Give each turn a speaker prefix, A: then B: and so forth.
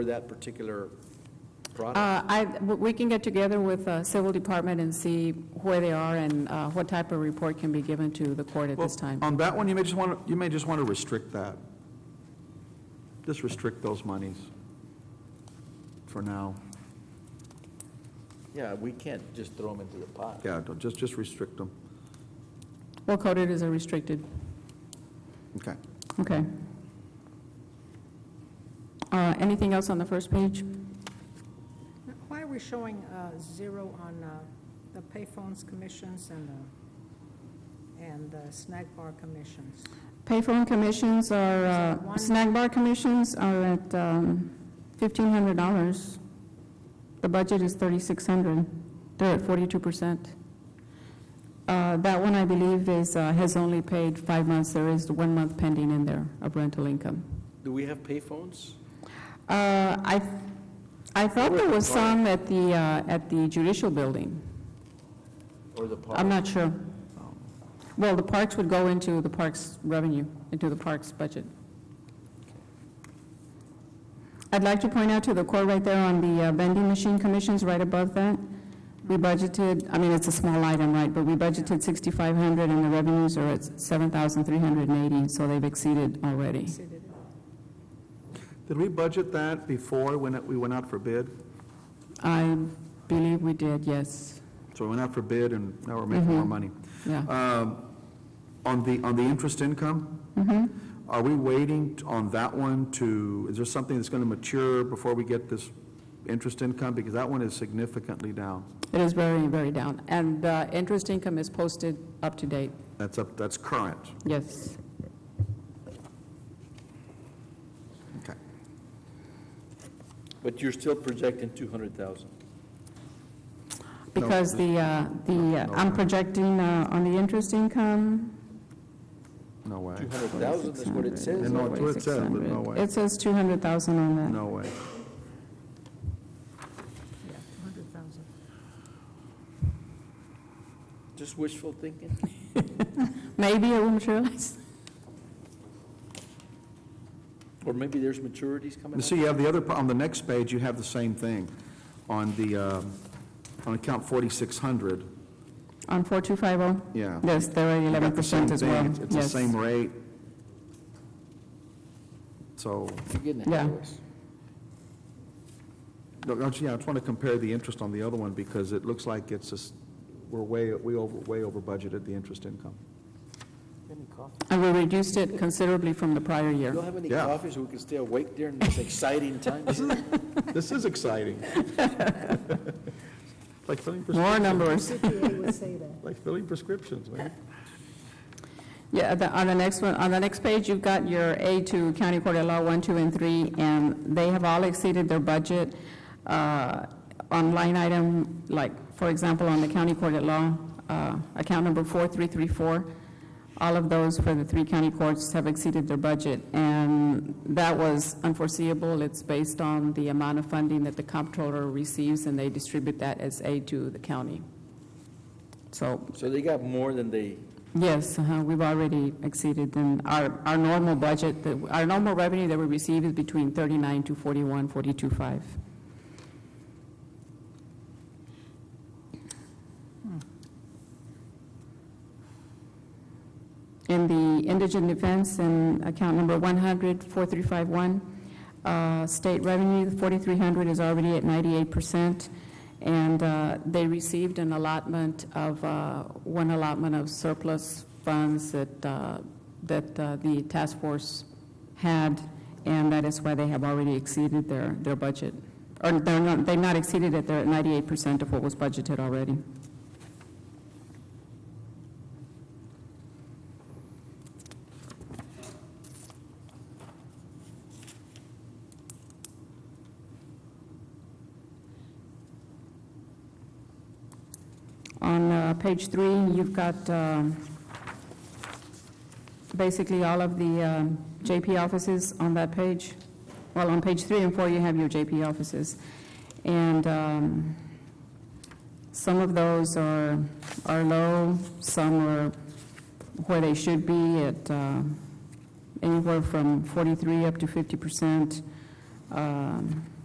A: for that particular product?
B: Uh, I, we can get together with uh, Civil Department and see where they are and uh, what type of report can be given to the court at
C: Well, um,
B: this time.
C: On that one, you may just want, to you may just want to restrict that. Just restrict those monies for now.
A: Yeah, we can't just throw them into the pot.
C: Yeah, don't- just, just restrict them.
B: Well, coded as a restricted,
C: Okay.
B: okay. Uh, Anything else on the first page?
D: Why are we showing uh, zero on uh, the payphones commissions and the, and the snack bar commissions?
B: Payphone commissions are,
D: So
B: uh,
D: one-
B: snack bar commissions are at um, $1,500. The budget is 3,600. They're at 42%. Uh, That one, I believe, is, uh, has only paid five months. There is one month pending in there of rental income.
A: Do we have payphones?
B: Uh, I, I thought there was some at the, uh, at the judicial building.
A: Or the park?
B: I'm not sure. Well, the parks would go into the parks revenue, into the parks budget. I'd like to point out to the court right there on the uh, vending machine commissions, right above that, we budgeted, I mean, it's a small item, right, but we budgeted 6,500 and the revenues are at 7,380, so they've exceeded already.
D: Exceeded it.
C: Did we budget that before when it- we went out for bid?
B: I believe we did, yes,
C: So we went out for bid and now we're making
B: Mm-hmm.
C: more money.
B: yeah.
C: Um, On the, on the interest income?
B: Mm-hmm.
C: Are we waiting t- on that one to, is there something that's going to mature before we get this interest income? Because that one is significantly down.
B: It is very, very down. And uh, interest income is posted up to date,
C: That's up, that's current.
B: yes.
C: Okay.
A: But you're still projecting 200,000.
B: Because the, uh, the, uh, I'm projecting uh, on the interest income,
C: No way.
A: 200,000 is what it
B: 600.
A: says.
C: No, it's what it says, but no
B: 600.
C: way.
B: It says 200,000 on that.
C: No way.
D: Yeah, 200,000.
A: Just wishful thinking?
B: Maybe it will materialize.
A: Or maybe there's maturities coming up?
C: You see, you have the other, on the next page, you have the same thing. On the, um, on account 4600,
B: On 4250?
C: Yeah.
B: Yes, they're
C: you
B: at
C: got the
B: 11%
C: same
B: as
C: thing.
B: well.
C: It's- It's the
B: Yes.
C: same rate. So,
A: You're getting ahead
B: Yeah.
A: of us.
C: no, don't you- yeah, I just want to compare the interest on the other one because it looks like it's just, we're way, we over, way over budgeted the interest income.
A: You have any coffee?
B: And we reduced it considerably from the prior year.
A: You don't have any
C: Yeah.
A: coffee so we can stay awake during this exciting time?
C: This is exciting. Like filling
B: More
C: prescriptions,
B: numbers.
D: CPA would say that.
C: like filling prescriptions, man.
B: Yeah, the- on the next one, on the next page, you've got your A2 County Court at Law 1, 2, and 3, and they have all exceeded their budget uh, on line item, like, for example, on the County Court at Law, uh, account number 4334, all of those for the three county courts have exceeded their budget, and that was unforeseeable. It's based on the amount of funding that the comptroller receives, and they distribute that as aid to the county. So
A: So they got more than they,
B: Yes, uh-huh, we've already exceeded, and our, our normal budget, that- our normal revenue that we receive is between 39 to 41, 42.5. In the indigent defense, in account number 100, 4351, uh, state revenue, 4,300 is already at 98%, and uh, they received an allotment of, uh, one allotment of surplus funds that, uh, that uh, the task force had, and that is why they have already exceeded their, their budget. Or they're not, they've not exceeded it, they're at 98% of what was budgeted already. On uh, page three, you've got um, basically all of the um, JP offices on that page. Well, on page three and four, you have your JP offices. And um, some of those are, are low, some are where they should be at uh, anywhere from 43 up to 50 percent. um,